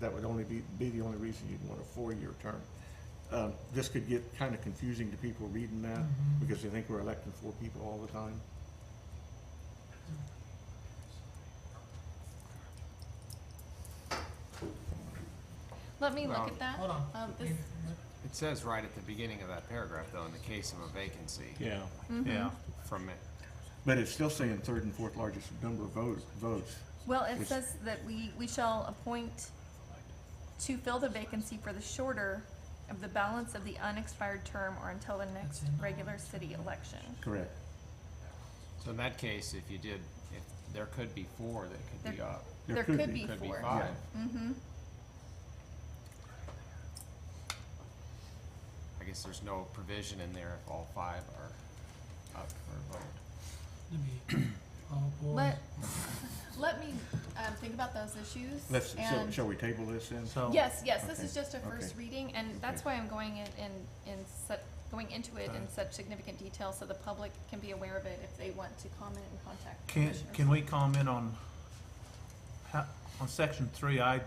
That would only be, be the only reason you'd want a four-year term. Um, This could get kind of confusing to people reading that Mm-hmm. because they think we're electing four people all the time. Let me look Well, at that. Hold on. Um, this, You- It says right at the beginning of that paragraph, though, in the case of a vacancy. Yeah. Mm-hmm. Yeah. From it. But it's still saying third and fourth largest number of votes, votes. well, it Which- says that we, we shall appoint to fill the vacancy for the shorter of the balance of the unexpired term or until the next in the- regular city election. Correct. So in that case, if you did, if, there could be four that could be There- up. There There could could be. be Could be four. five. Mm-hmm. I guess there's no provision in there if all five are up for a vote. let me- Oh, boy. Let, let me, um, think about those issues. Let's, shall, and- shall we table this then? So, Yes, yes, this oh. Okay, is just a first okay. reading, and that's why I'm going in, in, in such, going into it in Alright. such significant detail, so the public can be aware of it if they want to comment and contact can, commissioners. can we comment on, how, on section three, I,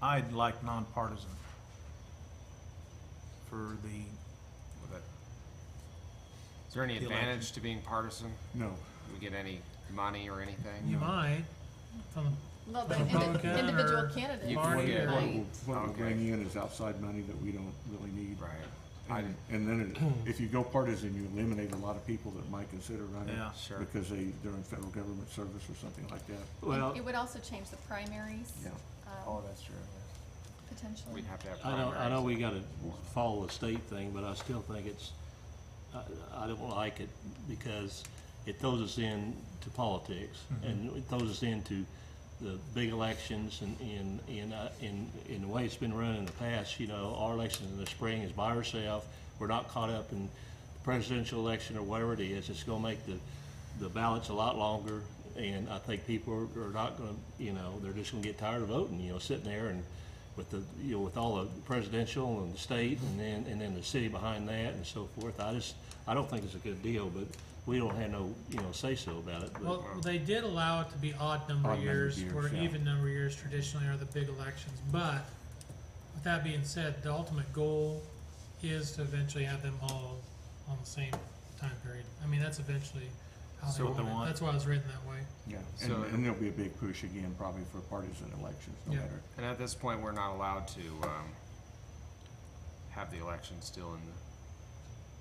I'd like nonpartisan for the, Would that- Is there any The advantage to being partisan? No. Do we get any money or anything? You might, from the Well, the Republican indi- individual or candidate. You What Party it- or- what Right. it will, what it will Okay. bring in is outside money that we don't really need. Right. I- And, and then it- if you go partisan, you eliminate a lot of people that might consider running. yeah. Sure. Because they, they're in federal government service or something like that. It- Well, It would also change the primaries, Yeah. um, that's true. potentially. We'd have to have I know, primaries. I know we gotta follow the state thing, but I still think it's, I, I don't like it because it throws us in to politics and it throws us into the big elections and, and, and, uh, in, in the way it's been run in the past, you know, our election in the spring is by ourselves. We're not caught up in presidential election or whatever it is. It's gonna make the, the ballots a lot longer. And I think people are, are not gonna, you know, they're just gonna get tired of voting, you know, sitting there and, with the, you know, with all the presidential and the state and then, and then the city behind that and so forth. I just, I don't think it's a good deal, but we don't have no, you know, say-so about it, but, Well, they did allow it to be odd number Odd number years, years, where yeah. even number years traditionally are the big elections, but with that being said, the ultimate goal is to eventually have them all on the same time period. I mean, that's eventually how they So what they want want. it, that's why it was written that way. Yeah. So- And, and there'll be a big push again, probably for partisan elections, no Yeah. matter. And at this point, we're not allowed to, um, have the election still in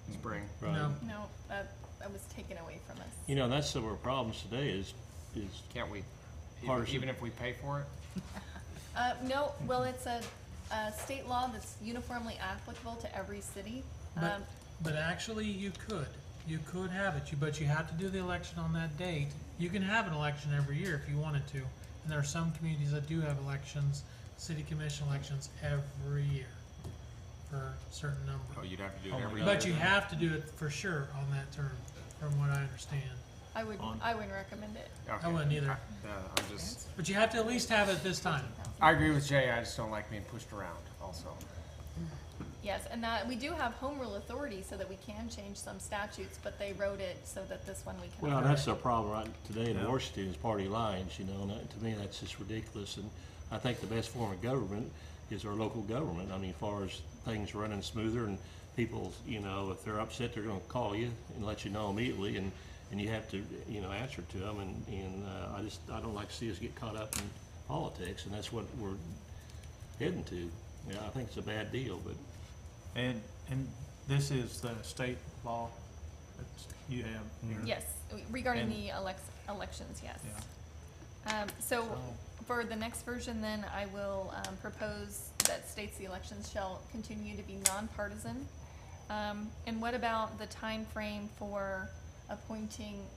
Mm-hmm. the spring. right? No. No, that, that was taken away from us. You know, that's some of our problems today is, is, Can't we, even- Partisan. even if we pay for it? Uh, no, well, it's a, a state law that's uniformly applicable to every city. But- Um, But actually, you could, you could have it, You but you have to do the election on that date. You can have an election every year if you wanted to, and there are some communities that do have elections, city commission elections every year for a certain Oh, number. you'd have to do Oh it my every God. year. But you have to do it for sure on that term, from what I understand. I would, On- I wouldn't recommend it. Okay. I wouldn't either, Yeah, I'm just, but you have to at least have it this time. I agree with Jay, I just don't like being pushed around also. Yes, and that, we do have home rule authority so that we can change some statutes, but they wrote it so that this one we can. well, that's our problem right today in Yeah. Washington is party lines, you know, and that- to me, that's just ridiculous. And I think the best form of government is our local government. I mean, as far as things running smoother and people, you know, if they're upset, they're gonna call you and let you know immediately and, and you have to, you know, answer to them. And, and, uh, I just, I don't like to see us get caught up in politics and that's what we're heading to. Yeah, I think it's a bad deal, but And, and this is the state law that you have here. Yes, regarding And- the elex- elections, yes. Yeah. Um, so So- for the next version, then I will um, propose that states the elections shall continue to be nonpartisan. Um, and what about the time frame for appointing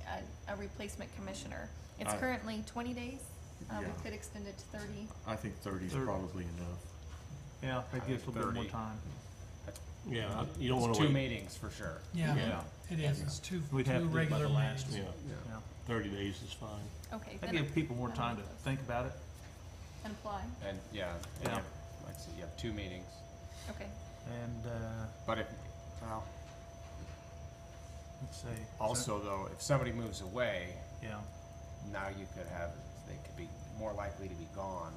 a, a replacement commissioner? It's I- currently twenty days. Um, Yeah. we could extend it to thirty. I think thirty is Thirty. probably enough. Yeah, that gives a little bit more Thirty. time. yeah, I- you don't wanna It's wait. two meetings for sure. Yeah, it is, it's two, two We'd have to do it by regular the last meetings. Yeah, Yeah. thirty days is fine. Okay, That then gives people more I time to like those. think about it. and apply. And, yeah, and you Yeah. have- like I said, you have two meetings, Okay. And, uh, but if, well, let's see. also though, if somebody moves away, Yeah, now you could have, they could be more likely to be gone